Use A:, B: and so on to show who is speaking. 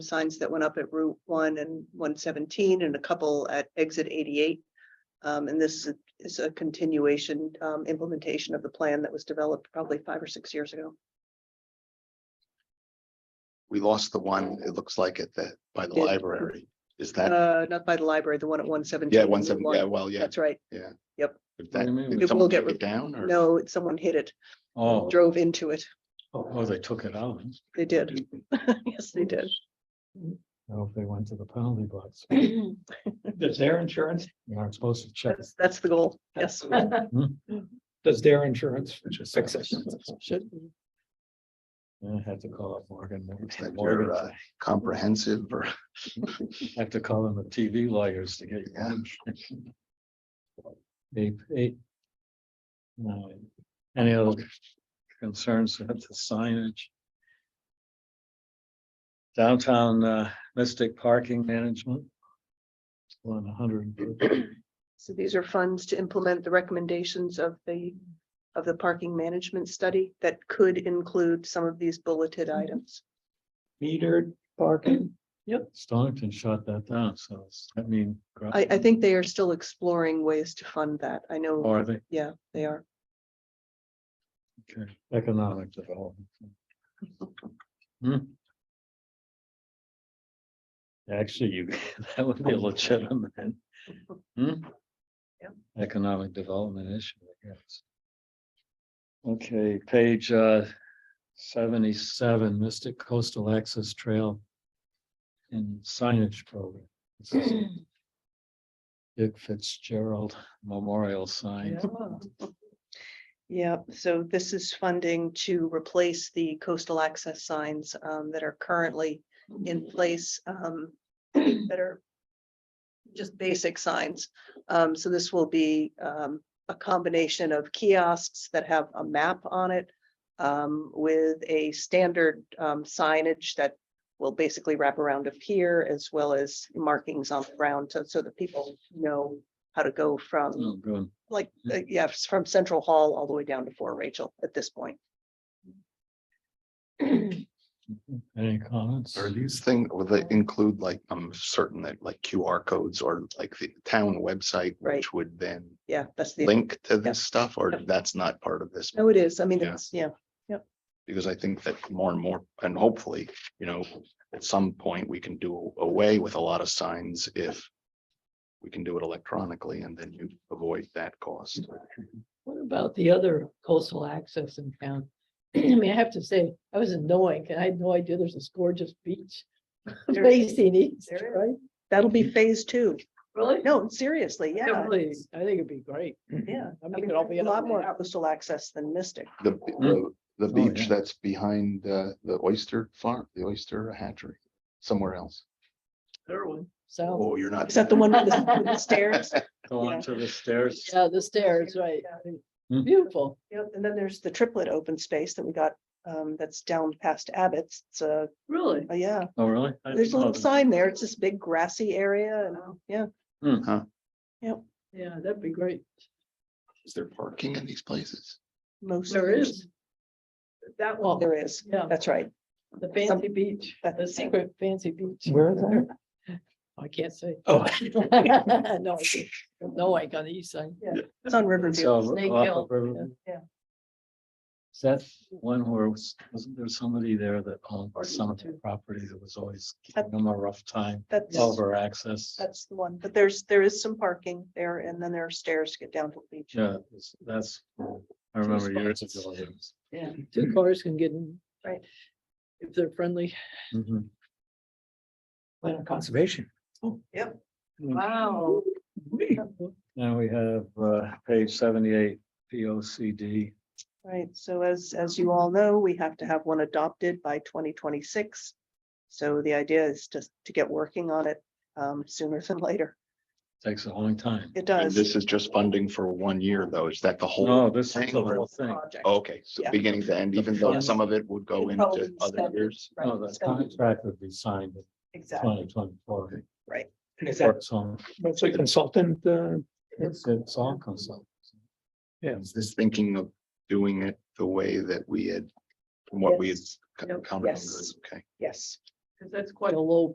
A: signs that went up at Route one and one seventeen and a couple at exit eighty-eight. Um, and this is- is a continuation, um, implementation of the plan that was developed probably five or six years ago.
B: We lost the one, it looks like at the, by the
A: Yeah.
B: library. Is that,
A: Uh, not by the library, the one at one seventeen.
B: yeah, one seven, yeah, well, yeah.
A: That's right.
B: If
C: What
B: that,
C: do you mean? It
B: did
A: will
B: someone
A: get
B: take
A: re-
B: it down or?
A: No, it's- someone hit it,
C: Oh,
A: drove into it.
C: oh, they took it out.
A: They did. Yes, they did.
C: I hope they went to the penalty box.
D: Does their insurance,
C: You aren't supposed to check.
A: That's, that's the goal. Yes.
D: does their insurance fix it?
C: Shit. I had to call up Morgan. Morgan-
B: It's like
C: Morgan-
B: your, uh, Comprehensive or?
C: Had to call in the TV lawyers to get.
B: Yeah.
C: Eight, eight. Nine. Any other concerns about the signage? Downtown uh, Mystic Parking Management. One hundred.
A: So these are funds to implement the recommendations of the, of the parking management study that could include some of these bulleted items.
D: Metered parking?
C: Stonington shut that down, so it's- I mean.
A: I, I think they are still exploring ways to fund that. I know,
C: Or they,
A: yeah, they are.
C: okay, economic development. Hmm. Actually, you, that would be a legitimate. hmm,
A: Yep.
C: Economic development issue, I guess. Okay, page uh seventy-seven, Mystic Coastal Access Trail. And signage program. This is Dick Fitzgerald Memorial Sign.
A: Yeah, so this is funding to replace the coastal access signs um, that are currently in place um, that are just basic signs. Um, So this will be um, a combination of kiosks that have a map on it um, with a standard um, signage that will basically wrap around a pier as well as markings on the ground so- so that people know how to go from
C: Oh, good.
A: like,
B: Hmm.
A: uh, yeah, it's from Central Hall all the way down to Fort Rachel at this point.
C: Any comments?
B: Are these things, will they include like, I'm certain that like QR codes or like the town website,
A: Right.
B: which would then
A: Yeah, that's the,
B: link to this stuff or that's not part of this?
A: no, it is. I mean,
B: Yeah.
A: it's, yeah,
B: Because I think that more and more, and hopefully, you know, at some point, we can do away with a lot of signs if we can do it electronically and then you avoid that cost.
E: What about the other coastal access in town? I mean, I have to say, I was annoying, 'cause I had no idea there's this gorgeous beach
A: There-
E: facing east,
A: there is.
E: right?
A: that'll be phase two.
E: Really?
A: No, seriously, yeah.
E: Definitely, I think it'd be great.
A: Yeah.
E: I
A: I
E: mean,
A: mean,
E: it'd all be
A: a lot
E: on
A: more
E: there.
A: coastal access than Mystic.
B: The, the, the beach
C: yeah.
B: that's behind uh, the oyster farm, the oyster hatchery, somewhere else.
E: So,
B: Oh, you're not.
A: Is that the one with the with the stairs?
C: Going to the stairs.
E: yeah, the stairs, right?
C: Hmm.
E: Beautiful.
A: Yep, and then there's the triplet open space that we got, um, that's down past Abbott's. It's a,
E: Really?
A: oh, yeah,
C: Oh, really? I
A: there's a
C: didn't know
A: little
C: that.
A: sign there. It's this big grassy area and, yeah,
B: Hmm.
E: Yeah, that'd be great.
B: Is there parking in these places?
A: most.
E: There is. That
A: Well,
E: one,
A: there is.
E: yeah,
A: That's right.
E: the fancy beach,
A: That's-
E: the secret fancy beach.
D: Where is that?
E: I can't say.
D: Oh.
E: No, I can't. no, I got the east side.
A: It's on Riverview.
C: So,
E: Snake
C: off
E: Hill,
C: of River-
A: yeah.
C: Is that one where, was- wasn't there somebody there that owned
E: Or
C: some of
E: two.
C: the property that was always
A: That-
C: giving them a rough time
A: That's.
C: over access?
A: That's the one, but there's, there is some parking there and then there are stairs to get down to the beach.
C: Yeah, it's- that's, I remember years ago. it was-
E: Yeah, two cars can get in.
A: Right.
E: If they're friendly.
C: Mhm.
D: Land conservation.
E: Wow.
C: Now we have uh, page seventy-eight, P O C D.
A: Right, so as, as you all know, we have to have one adopted by twenty twenty-six. So the idea is just to get working on it um, sooner than later.
C: Takes a long time.
A: It
B: And
A: does.
B: this is just funding for one year though. Is that the whole?
C: No, Oh, this is
B: thing Oh,
C: the
B: or-
C: whole thing.
A: project.
B: Okay, so
A: Yeah.
B: beginning to end, even though some of it would go
A: It'd probably
B: into
A: be
B: other
A: spent-
B: years.
A: Right,
C: No, the
A: it's gonna be-
C: Oh, contract would be signed in
A: Exactly,
C: twenty twenty-four.
D: And Is that
C: So
D: mostly consultant? uh,
C: it's, it's all consultants.
D: Yeah.
B: Is this thinking of doing it the way that we had, from what we had
A: Yes.
B: covered?
A: Yes.
B: Okay.
A: yes.
E: because that's quite a low